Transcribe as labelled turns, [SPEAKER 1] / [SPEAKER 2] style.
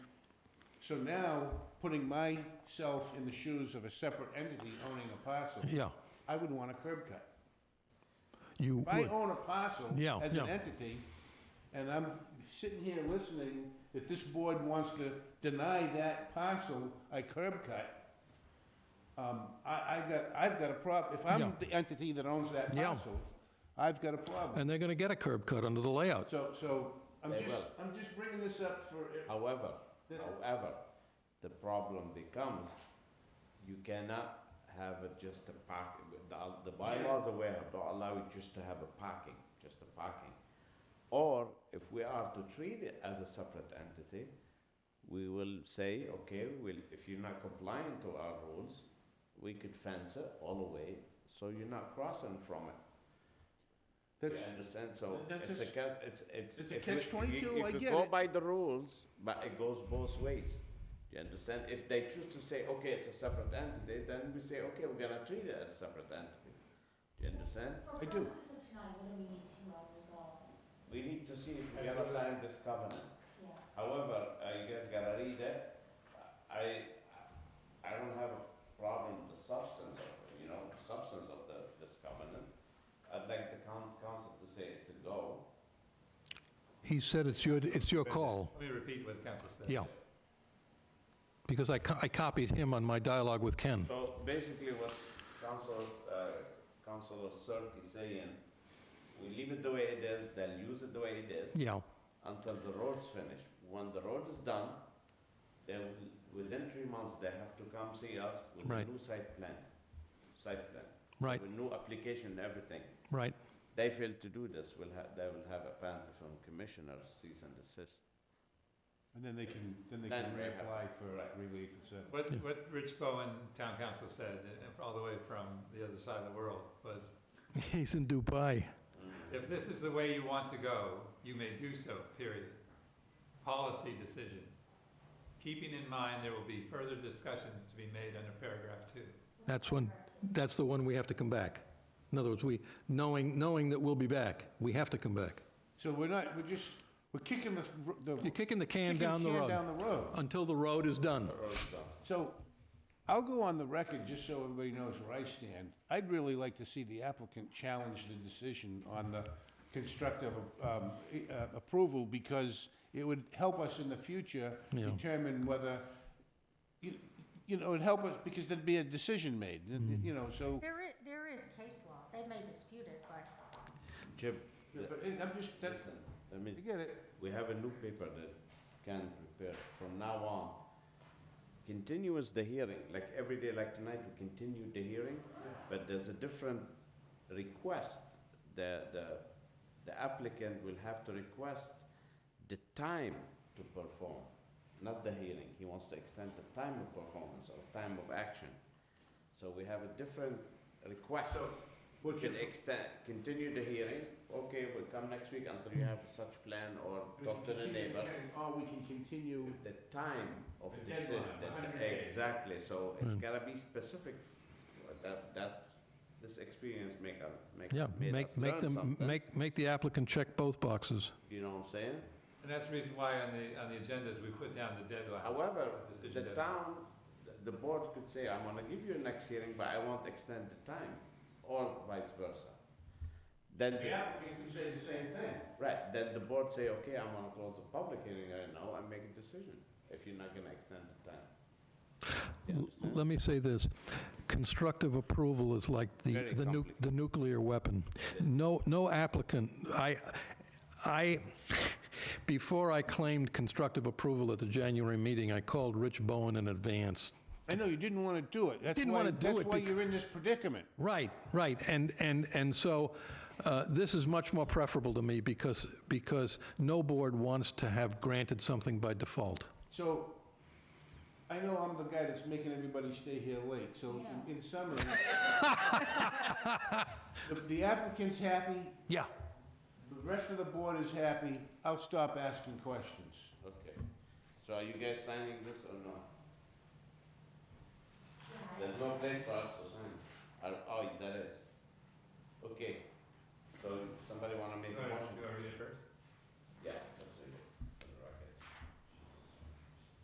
[SPEAKER 1] So now, putting myself in the shoes of a separate entity owning a parcel.
[SPEAKER 2] Yeah.
[SPEAKER 1] I would want a curb cut.
[SPEAKER 2] You
[SPEAKER 1] If I
[SPEAKER 2] would.
[SPEAKER 1] own a parcel
[SPEAKER 2] Yeah,
[SPEAKER 1] as an
[SPEAKER 2] yeah.
[SPEAKER 1] entity, and I'm sitting here listening that this board wants to deny that parcel a curb cut, um, I, I got, I've got a problem. If I'm
[SPEAKER 2] Yeah.
[SPEAKER 1] the entity that owns that
[SPEAKER 2] Yeah.
[SPEAKER 1] parcel, I've got a problem.
[SPEAKER 2] And they're going to get a curb cut under the layout.
[SPEAKER 1] So, so, I'm
[SPEAKER 3] They
[SPEAKER 1] just,
[SPEAKER 3] will.
[SPEAKER 1] I'm just bringing this up for,
[SPEAKER 3] However,
[SPEAKER 1] The-
[SPEAKER 3] however, the problem becomes, you cannot have it just a park, the, the bylaws are aware, don't allow you just to have a parking, just a parking. Or if we are to treat it as a separate entity, we will say, okay, well, if you're not compliant to our rules, we could fence it all the way, so you're not crossing from it. You
[SPEAKER 1] that's,
[SPEAKER 3] understand, so
[SPEAKER 1] That's
[SPEAKER 3] it's a,
[SPEAKER 1] just-
[SPEAKER 3] ca- it's,
[SPEAKER 1] it's
[SPEAKER 3] it's.
[SPEAKER 1] a
[SPEAKER 3] if you-
[SPEAKER 1] catch-22,
[SPEAKER 3] you-
[SPEAKER 1] I
[SPEAKER 3] you
[SPEAKER 1] get
[SPEAKER 3] Go
[SPEAKER 1] it.
[SPEAKER 3] by the rules, but it goes both ways. You understand? If they choose to say, okay, it's a separate entity, then we say, okay, we're gonna treat it as a separate entity. Do you understand?
[SPEAKER 1] I
[SPEAKER 4] For
[SPEAKER 1] do.
[SPEAKER 4] purposes of tonight, what do we need to uh, resolve?
[SPEAKER 3] We need to see if we're gonna sign this covenant.
[SPEAKER 4] Yeah.
[SPEAKER 3] However, uh, you guys gotta read it. I, I don't have a problem with the substance of, you know, substance of the, this covenant. I'd like the coun- council to say it's a go.
[SPEAKER 2] He said it's your, it's your call.
[SPEAKER 5] Let me repeat what council said.
[SPEAKER 2] Yeah. Because I, co- I copied him on my dialogue with Ken.
[SPEAKER 3] So basically what Council, uh, Councilor Cirque is saying, we leave it the way it is, they'll use it the way it is
[SPEAKER 2] Yeah,
[SPEAKER 3] until the road's finished. When the road is done, they will, within three months, they have to come see us with a
[SPEAKER 2] Right.
[SPEAKER 3] new site plan, site plan.
[SPEAKER 2] Right.
[SPEAKER 3] With new application and everything.
[SPEAKER 2] right.
[SPEAKER 3] They fail to do this, will have, they will have a penalty from commissioner, cease and desist.
[SPEAKER 1] and then they can, then they
[SPEAKER 3] Then
[SPEAKER 1] can
[SPEAKER 3] we have-
[SPEAKER 1] reapply for
[SPEAKER 3] right.
[SPEAKER 1] relief, et cetera.
[SPEAKER 5] What, what Rich Bowen, town council, said, uh, all the way from the other side of the world, was,
[SPEAKER 2] He's in Dubai.
[SPEAKER 5] if this is the way you want to go, you may do so, period. Policy decision. Keeping in mind, there will be further discussions to be made under paragraph two.
[SPEAKER 2] That's one, that's the one we have to come back. In other words, we, knowing, knowing that we'll be back, we have to come back.
[SPEAKER 1] So we're not, we're just, we're kicking the, the.
[SPEAKER 2] You're kicking the can
[SPEAKER 1] kicking
[SPEAKER 2] down the
[SPEAKER 1] can
[SPEAKER 2] road
[SPEAKER 1] Down the road.
[SPEAKER 2] until the road is done.
[SPEAKER 3] Road's done.
[SPEAKER 1] So I'll go on the record, just so everybody knows where I stand. I'd really like to see the applicant challenge the decision on the constructive um, uh, approval because it would help us in the future
[SPEAKER 2] Yeah.
[SPEAKER 1] determine whether, you you know, it'd help us because there'd be a decision made,
[SPEAKER 2] Mm-hmm.
[SPEAKER 1] you know, so.
[SPEAKER 4] There is, there is case law. They may dispute it, but
[SPEAKER 3] Jim,
[SPEAKER 1] But I'm just, that's,
[SPEAKER 3] listen, let me.
[SPEAKER 1] I get it.
[SPEAKER 3] We have a new paper that can prepare from now on. Continuous the hearing, like every day, like tonight, we continue the hearing, but there's a different request. The, the, the applicant will have to request the time to perform, not the hearing. He wants to extend the time of performance or time of action. So we have a different request. We can extend, continue the hearing, okay, we'll come next week until you have such plan or talk to the neighbor.
[SPEAKER 1] Or we can continue.
[SPEAKER 3] The time of
[SPEAKER 1] The
[SPEAKER 3] decision,
[SPEAKER 1] deadline,
[SPEAKER 3] the-
[SPEAKER 1] 100 days.
[SPEAKER 3] exactly, so it's
[SPEAKER 2] Hmm.
[SPEAKER 3] gotta be specific, that, that, this experience make, us- make,
[SPEAKER 2] Yeah,
[SPEAKER 3] made
[SPEAKER 2] make,
[SPEAKER 3] us
[SPEAKER 2] make
[SPEAKER 3] learn
[SPEAKER 2] them,
[SPEAKER 3] something,
[SPEAKER 2] make, make the applicant check both boxes.
[SPEAKER 3] you know what I'm saying?
[SPEAKER 5] And that's the reason why on the, on the agendas, we put down the deadlines.
[SPEAKER 3] However,
[SPEAKER 5] decision
[SPEAKER 3] the
[SPEAKER 5] deadlines.
[SPEAKER 3] town, the- the board could say, I'm gonna give you next hearing, but I won't extend the time, or vice versa. Then the
[SPEAKER 1] applicant could say the same thing.
[SPEAKER 3] Right, then the board say, okay, I'm gonna close the public hearing right now and make a decision, if you're not gonna extend the time. You
[SPEAKER 2] L-
[SPEAKER 3] understand?
[SPEAKER 2] Let me say this, constructive approval is like the,
[SPEAKER 3] Very
[SPEAKER 2] the nu-
[SPEAKER 3] complicated.
[SPEAKER 2] the nuclear weapon. No, no applicant, I, I, before I claimed constructive approval at the January meeting, I called Rich Bowen in advance.
[SPEAKER 1] I know, you didn't want to do it. That's
[SPEAKER 2] Didn't
[SPEAKER 1] why-
[SPEAKER 2] wanna do
[SPEAKER 1] That's
[SPEAKER 2] it
[SPEAKER 1] why
[SPEAKER 2] bec-
[SPEAKER 1] you're in this predicament.
[SPEAKER 2] Right, right, and, and, and so uh, this is much more preferable to me because, because no board wants to have granted something by default.
[SPEAKER 1] So, I know I'm the guy that's making everybody stay here late, so in- in summary, the- the applicant's happy,
[SPEAKER 2] Yeah.
[SPEAKER 1] the rest of the board is happy, I'll stop asking questions.
[SPEAKER 3] Okay, so are you guys signing this or no? There's no place for us to sign, Or- oh, there is. Okay, so somebody wanna make
[SPEAKER 5] Go
[SPEAKER 3] a
[SPEAKER 5] ahead,
[SPEAKER 3] motion?
[SPEAKER 5] go ahead, read it first.